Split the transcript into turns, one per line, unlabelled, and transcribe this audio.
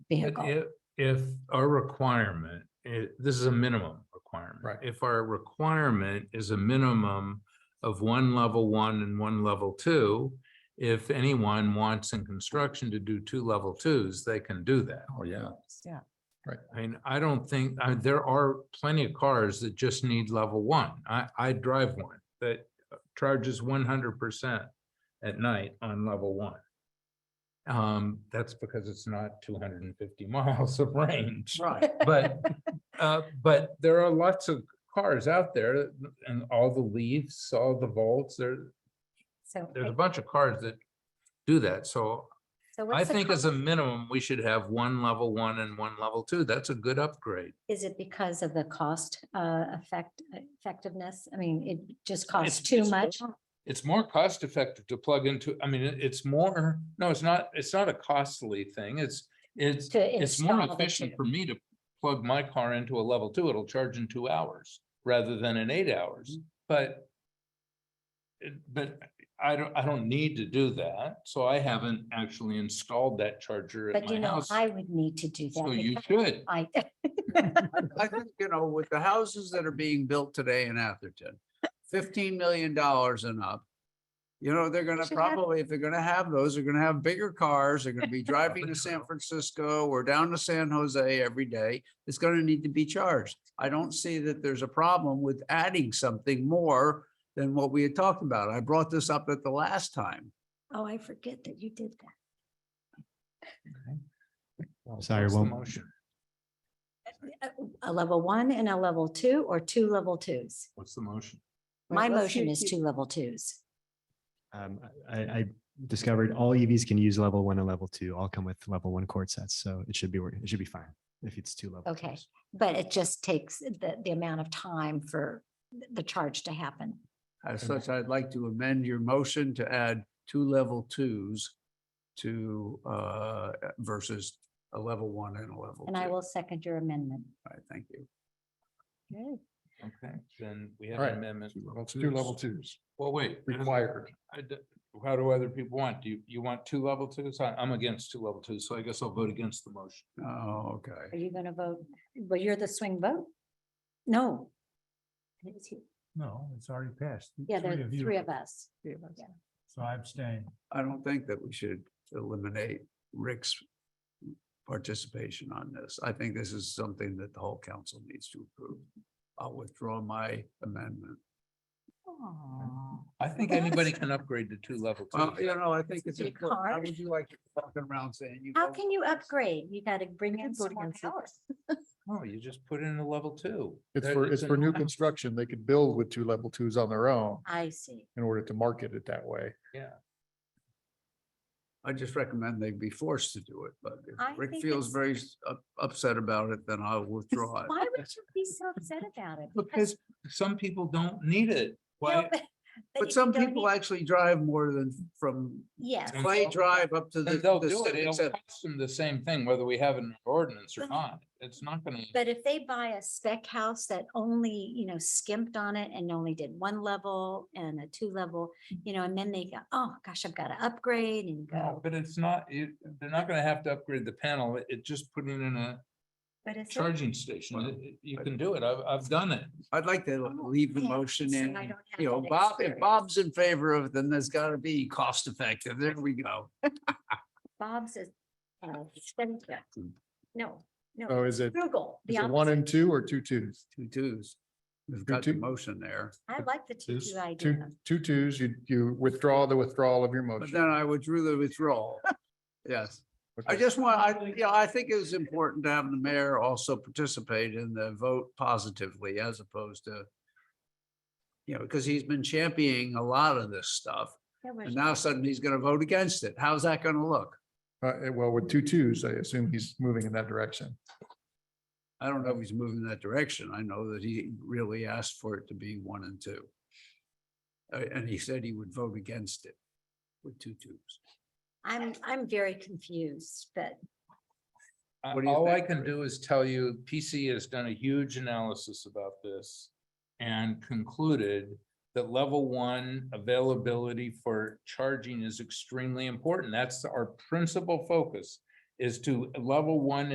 vehicle.
If, if our requirement, i- this is a minimum requirement.
Right.
If our requirement is a minimum of one level one and one level two, if anyone wants in construction to do two level twos, they can do that.
Oh, yeah.
Yeah.
I mean, I don't think, I, there are plenty of cars that just need level one. I, I drive one that charges one hundred percent at night on level one. Um, that's because it's not two hundred and fifty miles of range.
Right.
But, uh, but there are lots of cars out there and all the Leafs, all the Volts, there,
So,
there's a bunch of cars that do that. So
so
I
what's the,
think as
cost?
a minimum, we should have one level one and one level two. That's a good upgrade.
is it because of the cost uh, effect, effectiveness? I mean, it just costs
It's-
too
it's
much?
more- It's more cost effective to plug into, I mean, it- it's more, no, it's not, it's not a costly thing. It's, it's,
to
it's more
install the
efficient
two?
for me to plug my car into a level two. It'll charge in two hours rather than in eight hours,
Mm-hmm.
but it- but I don't, I don't need to do that. So I haven't actually installed that charger at
But you
my
know,
house.
I would need to do that.
So you
because
should.
I,
I think, you know, with the houses that are being built today in Atherton, fifteen million dollars and up. You know, they're gonna
Should have-
probably, if they're gonna have those, they're gonna have bigger cars, they're gonna be driving to San Francisco or down to San Jose every day. It's gonna need to be charged. I don't see that there's a problem with adding something more than what we had talked about. I brought this up at the last time.
oh, I forget that you did that.
Well,
Sorry,
what's the
well-
Motion.
Uh, A- A level one and a level two or two level twos?
What's the motion?
My
let's
motion
see-
is two level twos.
Um, I, I discovered all EVs can use level one and level two. All come with level one cord sets, so it should be, wor- it should be fine if it's two level.
Okay.
twos.
But it just takes the, the amount of time for th- the charge to happen.
As such, I'd like to amend your motion to add two level twos to uh versus a level one and a level two.
And I will second your amendment.
All right, thank you.
Good.
Okay, then we have
All
an
right,
amendment.
Two level twos
Well, wait. I don't-
required.
I d- How do other people want? Do you, you want two level twos? I- I'm against two level twos, so I guess I'll vote against the motion.
Oh,
Are
okay.
you going to vote? Well, you're the swing vote? No. It was you.
No, it's already passed.
Yeah, there are
you.
three of us.
So I abstain.
I don't think that we should eliminate Rick's participation on this. I think this is something that the whole council needs to approve. I'll withdraw my amendment.
Aw.
I think anybody can upgrade to two level
Well, you
twos.
know, I think it's
Your
important. How
card?
would you like to walk around saying? you
How
voted
can you
for this?
upgrade? You got to bring in some more power.
No, you just put in a level two.
It's
That-
for, it's
a-
for new construction. They could build with two level twos on their own
I see.
in order to market it that way.
Yeah.
I just recommend they be forced to do it, but
I
if Rick
think
feels
it's-
very s- up- upset about it, then I'll withdraw it.
Why would you be so upset about it?
Because some people don't need it. Why?
But some people actually drive more than f- from
Yes.
And
Clay
so-
Drive up to the.
Then they'll
the
do it.
civic
It'll
center.
cost them the same thing whether we have an ordinance or
But-
not. It's not gonna.
But if they buy a spec house that only, you know, skimped on it and only did one level and a two level, you know, and then they go, oh gosh, I've got to upgrade and
No,
go.
But it's not, you, they're not gonna have to upgrade the panel. It- It just put it in a
But it's.
charging station.
Well,
It- it- You can do it. I've, I've done it.
I'd like to
Oh,
leave the
yeah,
motion
so I
in,
don't have
you know,
that
Bob, if
experience.
Bob's in favor of, it, then there's gotta be cost effective. There we go.
Bob's is, uh, expensive. No,
So
no,
Oh, is it,
frugal. the
Hmm. is it one
opposite.
and two or two twos?
Two twos. We've got the
two.
motion there,
I like the two two
Two,
idea.
two twos, you, you withdraw the withdrawal of your
but
motion.
then I withdrew the withdrawal. Yes. I
Okay.
just want, I, yeah, I think it was important to have the mayor also participate in the vote positively as opposed to. You know, because he's been championing a lot of this stuff
That was-
and now suddenly he's gonna vote against it. How's that gonna look?
Uh, eh, well, with two twos, I assume he's moving in that direction.
I don't know if he's moving in that direction. I know that he really asked for it to be one and two. Uh, and he said he would vote against it with two twos.
I'm, I'm very confused, but
I-
What do you
All I
think,
can
Rick?
do is tell you, PC has done a huge analysis about this and concluded that level one availability for charging is extremely important. That's our principal focus is to level one